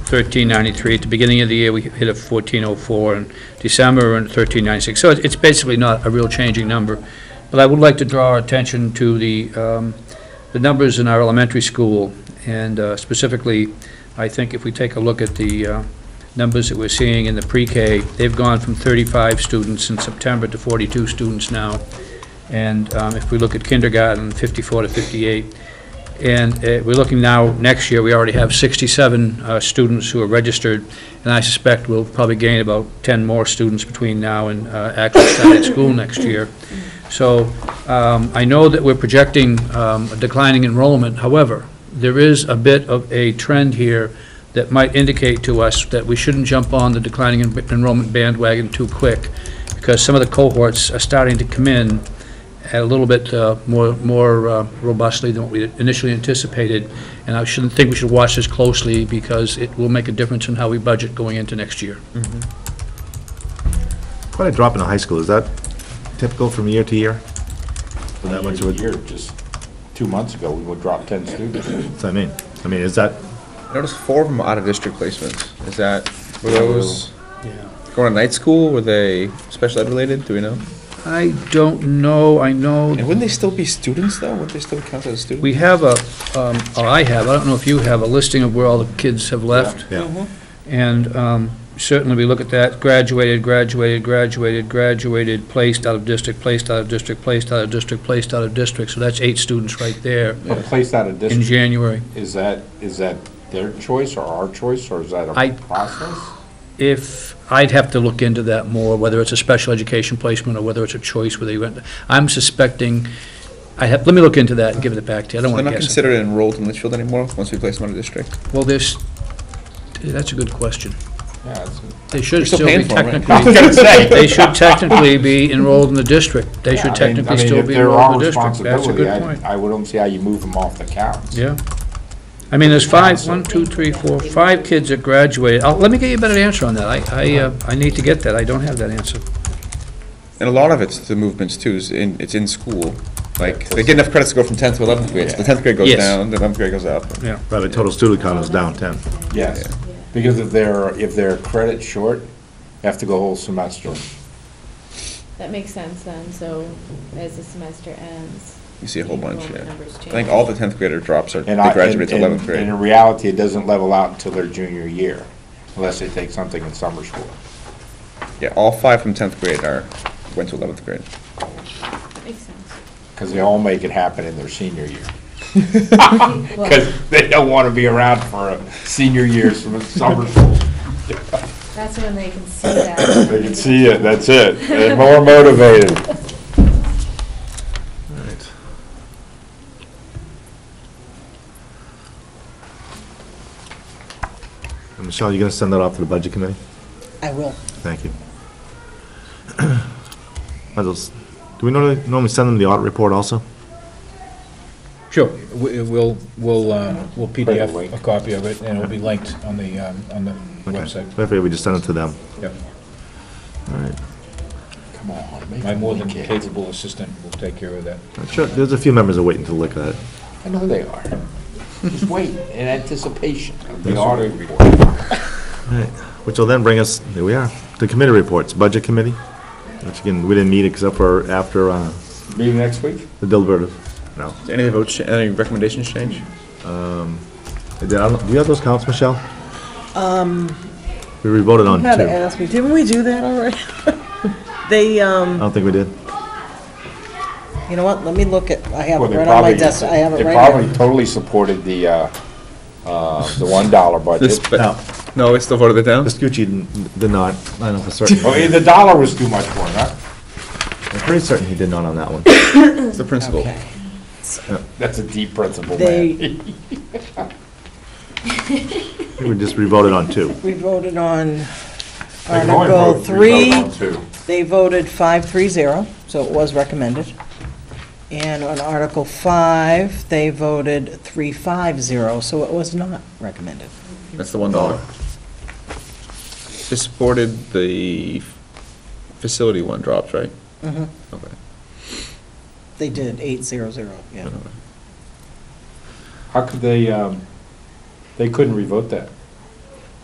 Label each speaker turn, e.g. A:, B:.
A: 1393. At the beginning of the year, we hit a 1404, and December, we're in 1396. So it- it's basically not a real changing number. But I would like to draw our attention to the, um, the numbers in our elementary school, and uh, specifically, I think if we take a look at the uh, numbers that we're seeing in the pre-K, they've gone from 35 students in September to 42 students now. And um, if we look at kindergarten, 54 to 58. And uh, we're looking now, next year, we already have 67 uh, students who are registered, and I suspect we'll probably gain about 10 more students between now and uh, actually starting school next year. So um, I know that we're projecting um, a declining enrollment, however, there is a bit of a trend here that might indicate to us that we shouldn't jump on the declining en- enrollment bandwagon too quick, because some of the cohorts are starting to come in a little bit uh, more more uh, robustly than what we initially anticipated, and I shouldn't think we should watch this closely, because it will make a difference in how we budget going into next year.
B: Quite a drop in the high school, is that typical from year to year? For that
C: Year
B: much
C: to
B: of a,
C: year, just two months ago, we would drop 10 students.
B: so I mean, I mean, is that,
D: I noticed four of them out of district placements. Is that, were those
A: Yeah.
D: going to night school? Were they special ed related? Do we know?
A: I don't know, I know
D: And wouldn't they still be students though? Wouldn't they still count as students?
A: We have a, um, or I have, I don't know if you have, a listing of where all the kids have left.
B: yeah,
D: Mm-hmm.
A: And um, certainly, we look at that, graduated, graduated, graduated, graduated, placed out of district, placed out of district, placed out of district, placed out of district. So that's eight students right there
C: But placed out of
A: in
C: district,
A: January.
C: is that, is that their choice or our choice, or is that
A: I-
C: a process?
A: If, I'd have to look into that more, whether it's a special education placement or whether it's a choice where they went. I'm suspecting, I have, let me look into that and give it back to you. I don't want
D: They're
A: to
D: not
A: guess. it.
D: considered enrolled in Litchfield anymore once we place them out of district.
A: Well, there's, that's a good question.
C: Yeah, it's-
A: They should
D: We're still
A: still be
D: paying for 'em, right?
A: technically. They should technically be enrolled in the district. They should
C: I mean- I
A: technically
C: mean,
A: still
C: if
A: be
C: they're
A: enrolled in
C: our
A: the district. That's a
C: responsibility,
A: good
C: I-
A: point.
C: I would not see how you move them off the counts.
A: Yeah. I mean, there's five, one, two, three, four, five kids that graduated. I'll- Let me get you a better answer on that. I, I, uh, I need to get that. I don't have that answer.
D: And a lot of it's the movements too, is in, it's in school. Like, they get enough credits to go from tenth to eleventh grade, so the tenth grade goes
A: Yes.
D: down, the eleventh grade goes up.
B: but the total student count is down ten.
C: Yes, because if they're, if they're credit short, they have to go a whole semester.
E: That makes sense then, so as the semester ends.
D: You see a whole bunch, yeah.
E: Numbers
D: I
E: change.
D: think all the tenth grader drops are, they
C: And I,
D: graduate
C: and
D: to eleventh
C: and-
D: grade.
C: and in reality, it doesn't level out until their junior year, unless they take something in summer school.
D: Yeah, all five from tenth grade are, went to eleventh grade.
E: Makes sense.
C: Because they all make it happen in their senior year. Because they don't want to be around for a senior years from a summer school.
E: That's when they can see that.
C: They can see it, that's it. They're more motivated.
B: And Uh, Michelle, you gonna send that off to the budget committee?
F: I will.
B: Thank you. Might as well s- Do we normally, normally send them the audit report also?
G: Sure, we- we'll, we'll, um, we'll
C: Right,
G: PDF
C: link.
G: a copy of it, and it'll be linked on the, um, on the
B: Okay.
G: website.
B: I figure we just send it to them.
G: Yep.
B: All right.
C: Come on, make
G: My
C: them
G: more than
C: like it.
G: capable assistant will take care of that.
B: I'm Uh, Sure, there's a few members that are waiting to look at it.
C: I know they are. Just wait in anticipation of the
B: That's
C: audit report.
B: Which will then bring us, here we are, the committee reports, budget committee, which again, we didn't meet except for after uh,
C: Meeting next week?
B: the deliberative. No.
D: Did Any votes, cha- any recommendations change?
B: I don't- Do you have those counts, Michelle? We revoted on two.
F: Had to
B: I
F: ask me, didn't we do that already? They, um,
B: don't think we did.
F: you know what, let me look at, I have it
C: Well, they
F: right on my
C: probably-
F: desk, I have it
C: They
F: right
C: probably
F: here.
C: totally supported the, uh, uh, the $1
D: This,
C: budget.
B: No,
D: but, no, it's still voted it down?
B: Vespucci didn't- did not, I know for certain.
C: Oh, yeah, the dollar was too much for it, huh?
B: I'm pretty certain he did not on that one.
D: It's the principal.
F: Okay.
C: That's a deep principle, man.
F: They,
B: I think We just revoted on two.
F: we voted on
C: They can only
F: Article
C: vote three,
F: three,
C: vote on two.
F: they voted five, three, zero, so it was recommended. And on Article five, they voted three, five, zero, so it was not recommended.
D: That's the one dollar. They supported the facility one drops, right?
F: Mhm.
D: Okay.
F: They did eight, zero, zero, yeah.
C: How could they, um, they couldn't revote that?